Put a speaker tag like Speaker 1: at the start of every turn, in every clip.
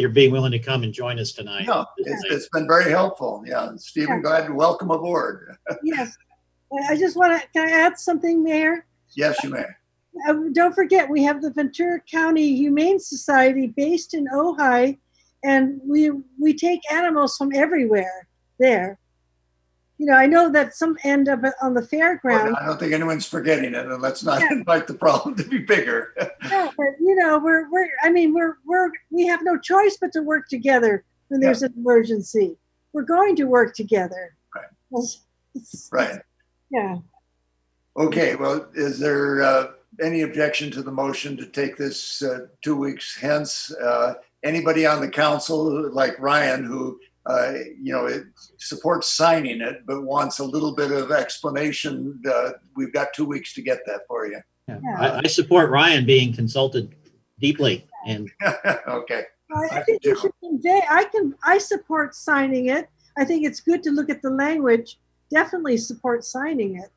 Speaker 1: you're being willing to come and join us tonight.
Speaker 2: No, it's, it's been very helpful. Yeah, Stephen, go ahead and welcome aboard.
Speaker 3: Yes. I- I just want to, can I add something, Mayor?
Speaker 2: Yes, you may.
Speaker 3: Uh, Don't forget, we have the Ventura County Humane Society based in Ojai, and we, we take animals from everywhere there. You know, I know that some end up on the fairground,
Speaker 2: I don't think anyone's forgetting it, and let's not invite the problem to be bigger.
Speaker 3: No, but you know, we're, we're, I mean, we're, we're, we have no choice but to work together when there's an emergency. We're going to work together.
Speaker 2: Right.
Speaker 3: It's- it's-
Speaker 2: Right.
Speaker 3: Yeah.
Speaker 2: Okay, well, is there uh, any objection to the motion to take this uh, two weeks hence? Uh, Anybody on the council, like Ryan, who, uh, you know, it supports signing it, but wants a little bit of explanation, uh, we've got two weeks to get that for you.
Speaker 1: Yeah. I, I support Ryan being consulted deeply and
Speaker 2: Okay,
Speaker 3: I
Speaker 2: I
Speaker 3: think
Speaker 2: do.
Speaker 3: you should convey, I can, I support signing it. I think it's good to look at the language. Definitely support signing it.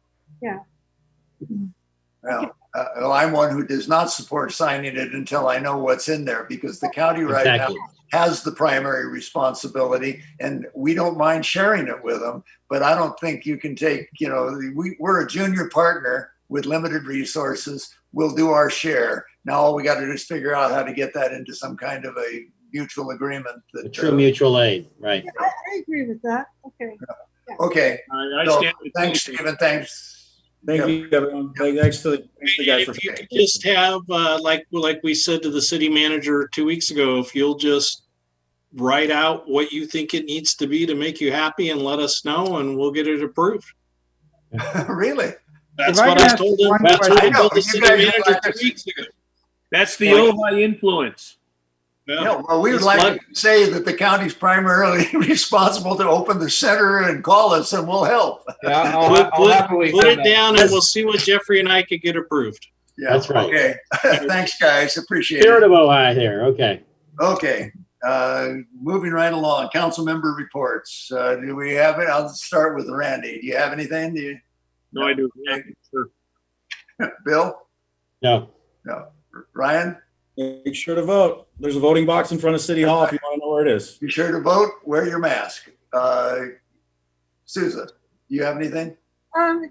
Speaker 2: well, uh, well, I'm one who does not support signing it until I know what's in there, because the county right now
Speaker 1: exactly.
Speaker 2: has the primary responsibility and we don't mind sharing it with them but i don't think you can take you know we, we're a junior partner with limited resources we'll do our share now all we got to do is figure out how to get that into some kind of a mutual agreement
Speaker 1: The
Speaker 2: that
Speaker 1: true
Speaker 2: uh,
Speaker 1: mutual aid, right.
Speaker 3: Yeah, I, I agree with that. Okay.
Speaker 2: uh, okay
Speaker 4: I I
Speaker 2: So,
Speaker 4: stand. with
Speaker 2: thanks
Speaker 4: you.
Speaker 2: stephen thanks
Speaker 5: Thank you, everyone. Thank- Thanks to the, thanks to the guys for.
Speaker 4: If you could just have, uh, like, like we said to the city manager two weeks ago, if you'll just write out what you think it needs to be to make you happy and let us know and we'll get it approved.
Speaker 2: really
Speaker 4: That's
Speaker 6: If I
Speaker 4: what
Speaker 6: could
Speaker 4: I
Speaker 6: ask
Speaker 4: told him,
Speaker 6: one
Speaker 4: that's what
Speaker 2: question. I
Speaker 4: I
Speaker 2: know,
Speaker 4: told the
Speaker 2: you
Speaker 4: city
Speaker 2: guys are
Speaker 4: manager
Speaker 2: like
Speaker 4: two
Speaker 2: this.
Speaker 4: weeks ago.
Speaker 6: That's the Ojai influence.
Speaker 4: Yeah.
Speaker 2: Yeah, well, we would
Speaker 4: Just
Speaker 2: like to say that the county's primarily responsible to open the center and call us and we'll help
Speaker 6: Yeah, I'll,
Speaker 4: Put-
Speaker 6: ha- I'll
Speaker 4: put-
Speaker 6: happily.
Speaker 4: Put
Speaker 6: send
Speaker 4: it
Speaker 6: that.
Speaker 4: down and we'll see what Jeffrey and I could get approved.
Speaker 2: yeah
Speaker 1: That's right.
Speaker 2: okay thanks guys appreciate it
Speaker 1: Spirit of Ojai there, okay.
Speaker 2: Okay, uh, moving right along, council member reports. Uh, do we have it? I'll start with Randy. Do you have anything? Do you,
Speaker 6: No, I do.
Speaker 2: Bill?
Speaker 1: No,
Speaker 2: Ryan?
Speaker 5: Make sure to vote. There's a voting box in front of City Hall if you want to know where it is.
Speaker 2: Be sure to vote, wear your mask. Uh, Souza, do you have anything?
Speaker 3: Um,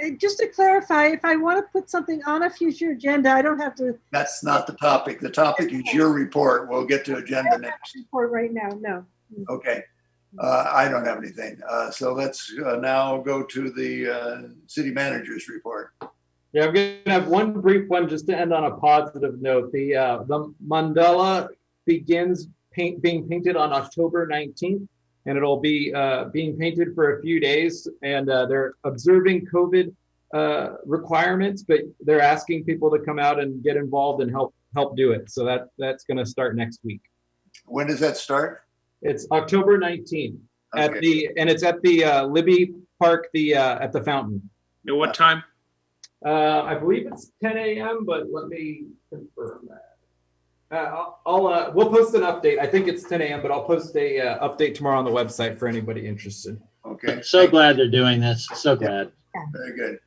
Speaker 3: eh, just to clarify, if I want to put something on a future agenda, I don't have to
Speaker 2: That's not the topic. The topic is your report. We'll get to agenda next.
Speaker 3: report right now. No.
Speaker 2: Okay. Uh, I don't have anything. Uh, so let's uh, now go to the uh, city manager's report.
Speaker 7: Yeah, I'm going to have one brief one just to end on a positive note. The uh, the mandala begins paint, being painted on October 19th, and it'll be uh, being painted for a few days. And uh, they're observing COVID uh, requirements, but they're asking people to come out and get involved and help help do it. So that that's going to start next week.
Speaker 2: When does that start?
Speaker 7: It's October 19th at
Speaker 2: Okay.
Speaker 7: the and it's at the uh, Libby Park, the uh, at the fountain.
Speaker 6: At what time?
Speaker 7: Uh, I believe it's 10 a.m., but let me confirm that. Uh, I'll, I'll uh, we'll post an update. I think it's 10 a.m., but I'll post a uh, update tomorrow on the website for anybody interested.
Speaker 2: Okay.
Speaker 1: so glad they're doing this, so glad.
Speaker 2: Very good.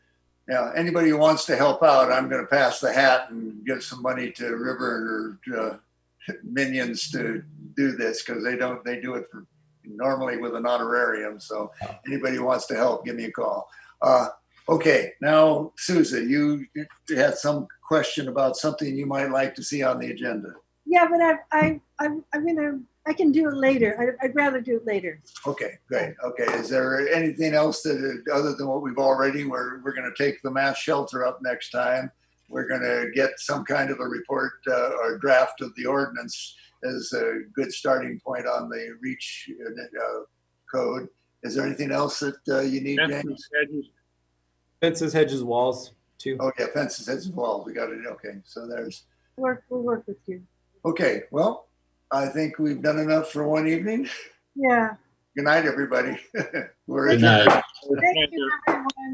Speaker 2: Now, anybody who wants to help out, I'm going to pass the hat and give some money to River or uh, Minions to do this because they don't, they do it for, normally with an honorarium. So anybody who wants to help, give me a call. Uh, okay, now, Souza, you you had some question about something you might like to see on the agenda.
Speaker 3: Yeah, but I, I, I'm, I'm gonna, I can do it later. I, I'd rather do it later.
Speaker 2: Okay, great. Okay, is there anything else that, other than what we've already, we're, we're gonna take the mass shelter up next time. We're gonna get some kind of a report, uh, or draft of the ordinance as a good starting point on the REACH, uh, code. Is there anything else that, uh, you need, James?
Speaker 7: Fences, hedges, walls, too.
Speaker 2: Oh, yeah, fences, that's involved. We got it. Okay, so there's,
Speaker 3: Work, we'll work with you.
Speaker 2: okay, well, I think we've done enough for one evening.
Speaker 3: Yeah.
Speaker 2: Good night, everybody. We're
Speaker 1: Good
Speaker 2: adjourned.
Speaker 1: night.
Speaker 3: Thank you, everyone.